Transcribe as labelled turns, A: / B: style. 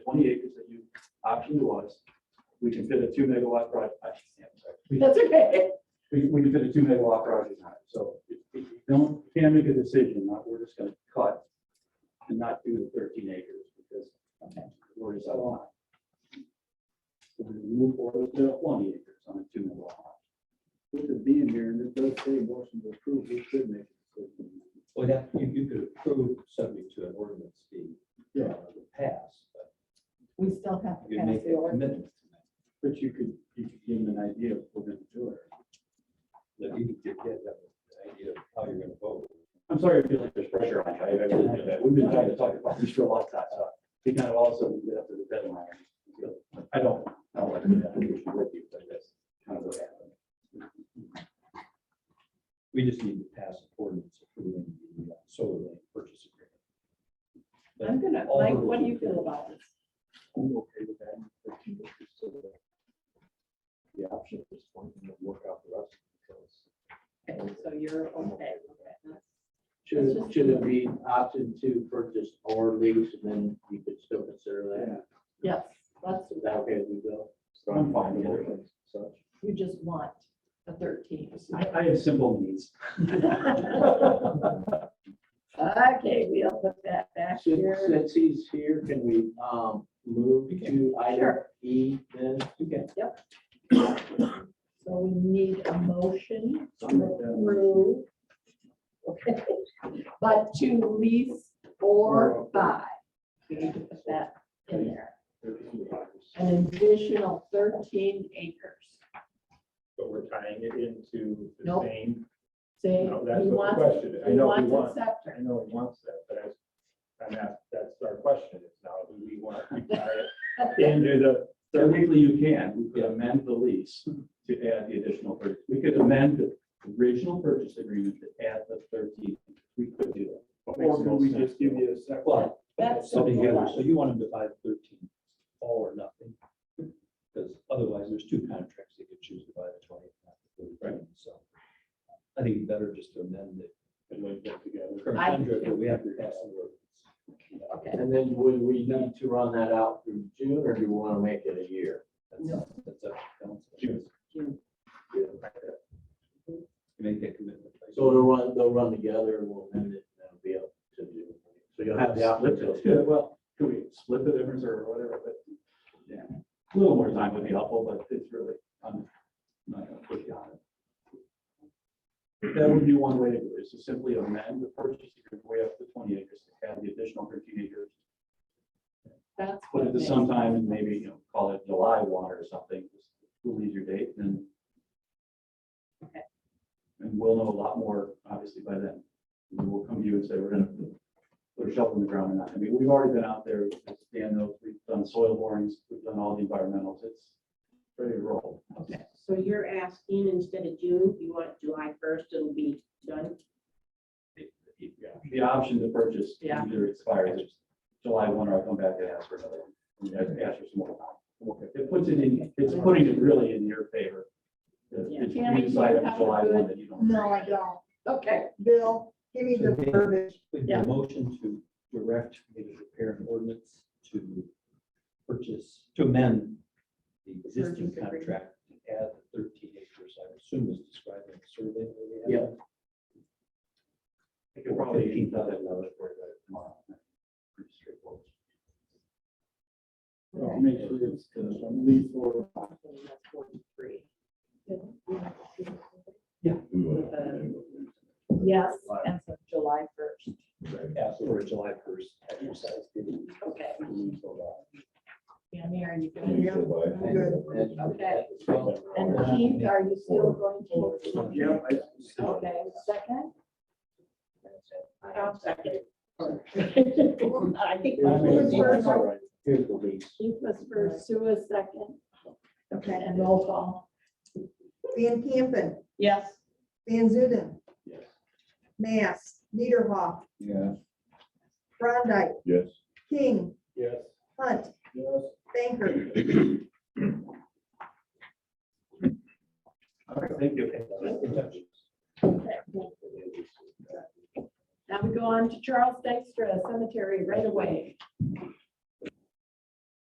A: twenty acres that you optioned to us. We can fit a two megawatt project. I can't, sorry. We-
B: That's okay.
A: We, we can fit a two megawatt project on it, so if you don't, can't make a decision, not, we're just gonna cut and not do the thirteen acres because we're just out of line. So we move forward to twenty acres on a two megawatt.
C: With it being here, and it does say motion to approve, we should make it.
D: Well, that, you, you could approve subject to an ordinance being uh, passed, but
B: We still have to
D: you could
B: pass
D: make
B: the
D: a
B: order.
D: commitment to
A: But you could, you could give them an idea of what we're gonna do it.
D: that. That you could get that idea of how you're gonna vote.
A: I'm sorry, I feel like there's pressure on you. I really feel that. We've been trying to talk about this for a long time, so we kind of also get up to the deadline. I don't, I don't like that. I'm just with you, but that's kind of what happened.
D: We just need to pass an ordinance approving the uh, solar lane purchase agreement. But
B: I'm gonna,
D: all
B: Mike,
D: those-
B: what do you feel about this?
A: I'm okay with that. The option at this point, and work out the rest.
B: Okay, So you're okay.
C: Should, should it be option to purchase or lease, and then you could still consider that?
B: Yes, that's,
C: Is that okay with you, Bill?
A: I'm fine with it.
C: So,
B: you just want a thirteen.
A: I, I have simple needs.
B: Okay, we'll put that back
C: Since,
B: here.
C: since he's here, can we, um, move to item
B: Sure.
C: E then?
B: So we need a motion to approve. Okay, but to lease or buy. We need to put that in there. An additional thirteen acres.
E: but we're tying it into the
B: Nope.
E: same,
B: Say, he
E: No, that's what the
B: wants,
E: question is. I
B: he
E: know we
B: wants
E: want-
B: a
E: I
B: scepter.
E: know he wants that, but I, I'm asked, that's our question is now, do we want to tie it into the,
A: Technically, you can, we could amend the lease to add the additional, pur- we could amend the original purchase agreement to add the thirteen. We could do that.
E: or do we just give you a second?
D: Well,
B: That's
D: so
B: simple.
D: together, so you want them to buy thirteen, all or nothing. Because otherwise, there's two contracts they could choose to buy the twenty, not the thirteen, so. I think it's better just to amend it.
E: And like that together.
D: Current
B: I-
D: contract, but we have to pass the ordinance.
B: Okay,
C: And then would we need to run that out through June, or do we want to make it a year?
D: That's, that's up to council. You make that commitment.
C: So they'll run, they'll run together, and we'll amend it, and that'll be up to June. So you'll have the option to.
A: Yeah, well, could we split the difference or whatever, but, yeah, a little more time would be helpful, but it's really, I'm not gonna push you on it. That would be one way to do it, is to simply amend the purchase agreement way up to twenty acres to add the additional thirteen acres.
B: that's.
A: Put it
B: what
A: to
B: makes
A: sometime
B: sense.
A: and maybe, you know, call it July one or something, just we'll leave your date and.
B: Okay.
A: And we'll know a lot more, obviously, by then. And We'll come to you and say, we're gonna put a shovel in the ground or not. I mean, we've already been out there, as Dan knows, we've done soil borings, we've done all the environmentals, it's ready to roll.
F: So you're asking instead of June, you want July first, it'll be done?
A: The option to purchase
B: Yeah.
A: either expires July one or I come back and ask for another. one. I mean, I'd Ask for some more. time. It puts it in, it's putting it really in your favor. If
B: Yeah.
A: you decide on July one that you don't.
G: No, I don't.
B: Okay,
G: Bill, give me the
D: Okay.
G: verbiage.
D: With
B: Yeah.
D: the motion to direct me to prepare an ordinance to purchase, to amend the existing
B: Purchase agreement.
D: contract to add the thirteen acres, I assume is described in the survey. that we
A: Yeah.
D: have.
A: I could probably keep that in another for that tomorrow. Pretty straightforward.
C: Make sure it's lease or.
B: and that's forty-three.
F: uh,
B: Yes, and so July first,
D: Ask for a July first exercise.
B: okay.
D: Well,
B: Yeah, Mary, you can hear. Okay. And
C: Okay.
B: Keith, are you still going to?
C: Yeah, I-
B: Okay, second?
F: I'll second.
B: I think
C: Here's
B: Keith was
C: the-
B: first,
C: Here's the lease.
B: Keith was first, Sue was second. Okay, and roll call.
G: Van Campen,
B: Yes.
G: Van Zuiden,
A: Yes.
G: Mass, Niederhoff,
D: Yeah.
G: Brondike,
E: Yes.
G: King,
E: Yes.
G: Hunt,
E: Yes.
G: Banker.
A: All right, thank you.
B: Okay. Now we go on to Charles Dykstra Cemetery right away.